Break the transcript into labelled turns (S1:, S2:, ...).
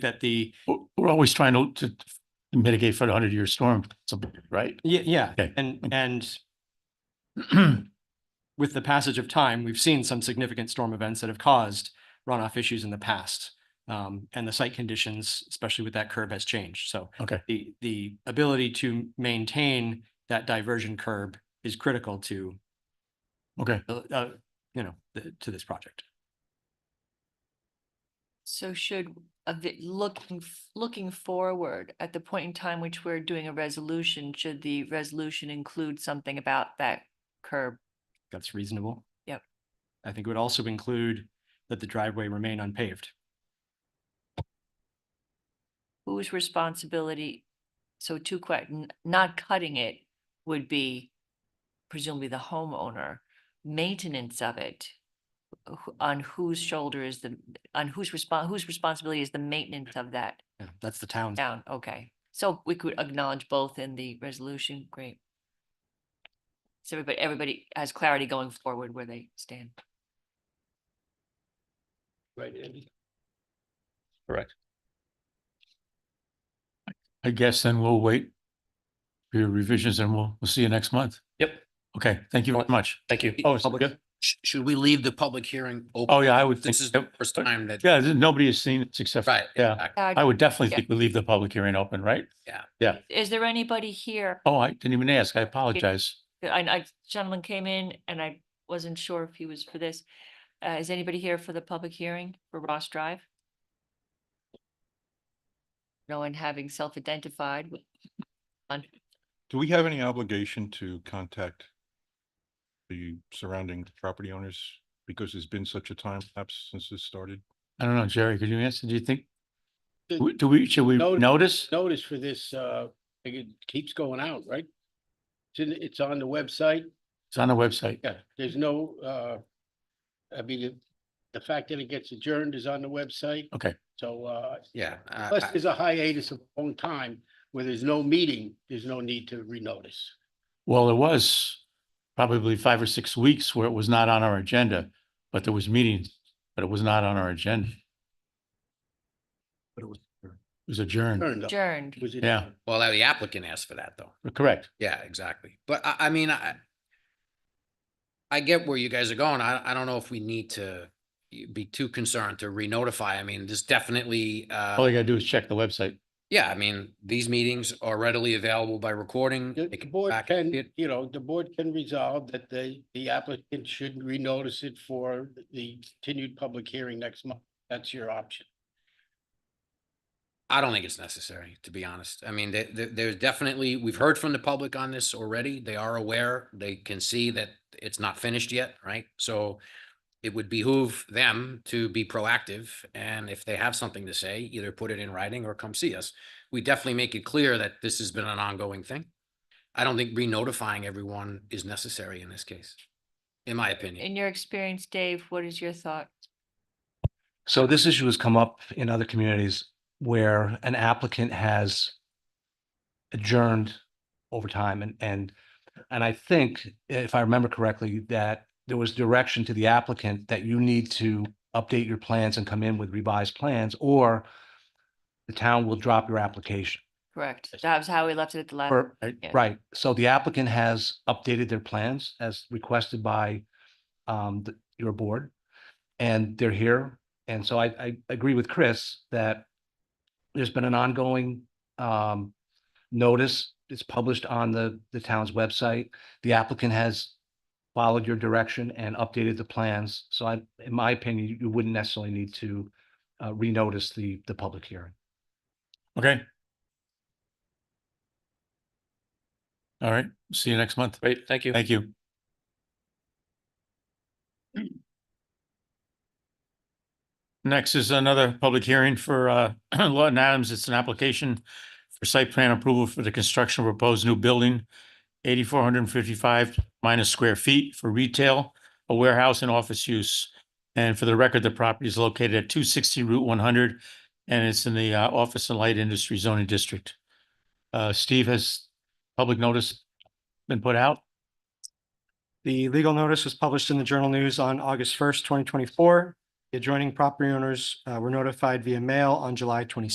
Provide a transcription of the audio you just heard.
S1: that the,
S2: We're- We're always trying to- to to mitigate for the hundred year storm, something, right?
S1: yeah, yeah,
S2: Okay. Mm.
S1: and, and with the passage of time, we've seen some significant storm events that have caused runoff issues in the past. Um, and the site conditions, especially with that curb has changed. So
S2: Okay.
S1: the, the ability to maintain that diversion curb is critical to,
S2: Okay,
S1: uh, uh, you know, the- to this project.
S3: So should, a vi- looking, f- looking forward, at the point in time which we're doing a resolution, should the resolution include something about that curb?
S1: That's reasonable.
S3: Yep.
S1: I think it would also include that the driveway remain unpaved.
S3: Whose responsibility? So two que, not cutting it would be presumably the homeowner. Maintenance of it, wh- on whose shoulder is the, on whose respon whose responsibility is the maintenance of that
S1: Yeah, That's the town's.
S3: down? Okay, so we could acknowledge both in the resolution, great. So everybody, everybody has clarity going forward where they stand.
S1: Right, Andy.
S2: I guess then we'll wait for your revisions and we'll, we'll see you next month.
S4: Yep.
S2: Okay, thank you very much.
S4: Thank you.
S2: Oh, it's- yeah.
S5: Sh- Should we leave the public hearing open?
S2: oh, yeah, I would think,
S5: This is the
S2: yep.
S5: first time that.
S2: yeah, this- nobody has seen it except,
S5: Right.
S2: yeah,
S5: exactly.
S3: Uh,
S2: I would definitely
S3: Yeah.
S2: think we leave the public hearing open, right?
S3: Is there anybody here?
S2: Oh, I didn't even ask. I apologize.
S3: I, I, gentleman came in and I wasn't sure if he was for this. Uh, is anybody here for the public hearing for Ross Drive? No one having self-identified.
S6: Do we have any obligation to contact the surrounding property owners? Because there's been such a time lapse since this started.
S2: I don't know, Jerry, could you answer? Do you think?
S7: The-
S2: w- Do we, should we
S7: Notice-
S2: notice?
S7: notice for this, uh, like it keeps going out, right? It's in, it's on the website.
S2: It's on the website.
S7: Yeah, there's no, uh, I mean, it- the fact that it gets adjourned is on the website.
S2: Okay.
S7: So, uh,
S5: Yeah. I-
S7: unless
S5: I-
S7: there's a hiatus of a long time where there's no meeting, there's no need to renotice.
S2: Well, there was probably five or six weeks where it was not on our agenda, but there was meetings, but it was not on our agenda. But it was. It was
S5: Hmm.
S2: adjourned.
S7: Turned up.
S3: Adjourned.
S7: Was it-
S2: Yeah.
S5: Well, the applicant asked for that, though.
S2: Correct.
S5: Yeah, exactly. But I, I mean, I I get where you guys are going. I, I don't know if we need to be too concerned to re-notify. I mean, there's definitely,
S2: All
S5: uh,
S2: you gotta do is check the website.
S5: yeah, I mean, these meetings are readily available by recording.
S7: The
S5: They
S7: the
S5: can
S7: board
S5: back and see
S7: can,
S5: it.
S7: you know, the board can resolve that the, the applicant should renotice it for the continued public hearing next month. That's your option.
S5: I don't think it's necessary, to be honest. I mean, there, there, there's definitely, we've heard from the public on this already. They are aware. They can see that it's not finished yet, right? So it would behoove them to be proactive. And if they have something to say, either put it in writing or come see us. We definitely make it clear that this has been an ongoing thing. I don't think re-notifying everyone is necessary in this case, in my opinion.
S3: In your experience, Dave, what is your thought?
S4: So this issue has come up in other communities where an applicant has adjourned over time and, and, and I think, if I remember correctly, that there was direction to the applicant that you need to update your plans and come in with revised plans, or the town will drop your application.
S3: Correct. That was how we left it at the last.
S4: Or, uh,
S3: Yeah.
S4: right, so the applicant has updated their plans as requested by um th- your board. And they're here, and so I I agree with Chris that there's been an ongoing um notice. It's published on the the town's website. The applicant has followed your direction and updated the plans. So I, in my opinion, you- you wouldn't necessarily need to uh renotice the the public hearing.
S2: Okay. All right, see you next month.
S8: Great, thank you.
S2: Thank you. Next is another public hearing for uh, Lawton Adams. It's an application for site plan approval for the construction of a proposed new building, eighty-four hundred and fifty-five minus square feet for retail, a warehouse and office use. And for the record, the property is located at two sixty Route one hundred, and it's in the uh, Office and Light Industry zoning district. Uh, Steve, has public notice been put out?
S9: The legal notice was published in the Journal News on August first, twenty twenty-four. The adjoining property owners uh, were notified via mail on July 26.